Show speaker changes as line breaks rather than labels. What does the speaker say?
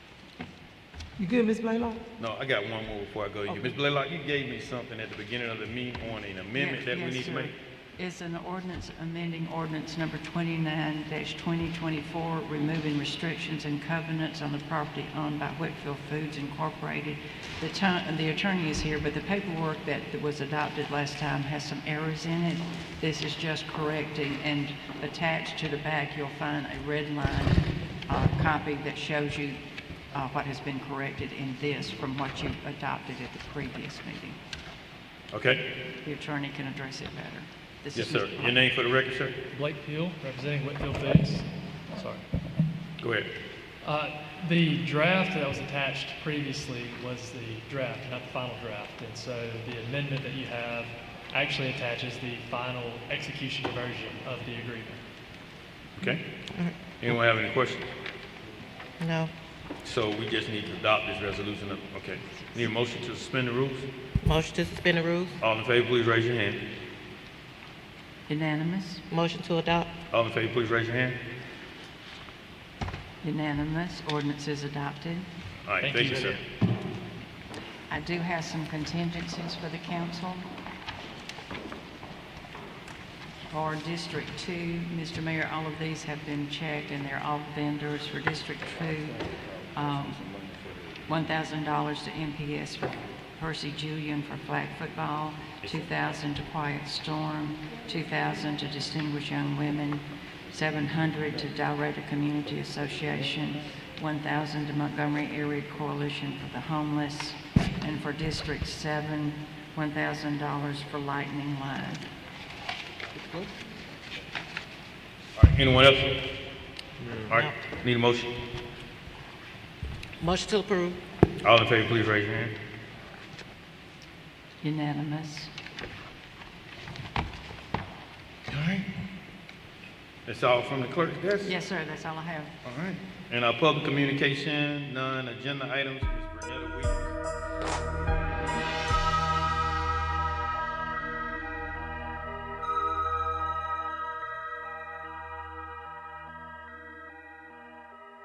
You good, Miss Blaylock?
No, I got one more before I go to you. Ms. Blaylock, you gave me something at the beginning of the meeting on an amendment that we
Yes,
need to
sir.
make.
It's an ordinance amending ordinance number 29-2024, removing restrictions and covenants on the property owned by Whitfield Foods Incorporated. The ti- the attorney is here, but the paperwork that was adopted last time has some errors in it. This is just correcting, and attached to the back, you'll find a red line uh, copy that shows you uh, what has been corrected in this from what you adopted at the previous meeting.
Okay?
The attorney can address it better. This
Yes,
is
sir.
Mr.
Your name for the record, sir?
Blake Peel, representing Whitfield Foods. Sorry.
Go ahead.
Uh, The draft that was attached previously was the draft, not the final draft. And so the amendment that you have actually attaches the final execution version of the agreement.
Okay?
Mm-hmm.
Anyone have any questions?
No.
So we just need to adopt this resolution. Okay. Need a motion to suspend the rules?
Motion to suspend the rules.
All in favor, please raise your hand.
Unanimous,
Motion to adopt.
All in favor, please raise your hand.
unanimous, ordinance is adopted.
All right,
Thank
thank you,
you.
sir.
I do have some contingencies for the council. For District Two, Mr. Mayor, all of these have been checked and they're all vendors for District Two. um, $1,000 to MPS for Percy Julian for flag football, 2,000 to Quiet Storm, 2,000 to Distinguished Young Women, 700 to Dalrata Community Association, 1,000 to Montgomery Area Coalition for the Homeless, and for District 7, $1,000 for Lightning Line.
All right, anyone else? All right, need a motion?
Motion to approve.
All in favor, please raise your hand.
Unanimous.
That's all from the clerk. Yes?
Yes, sir, that's all I have.
All right. And our public communication, non-agenda items, Ms. Renetta Williams.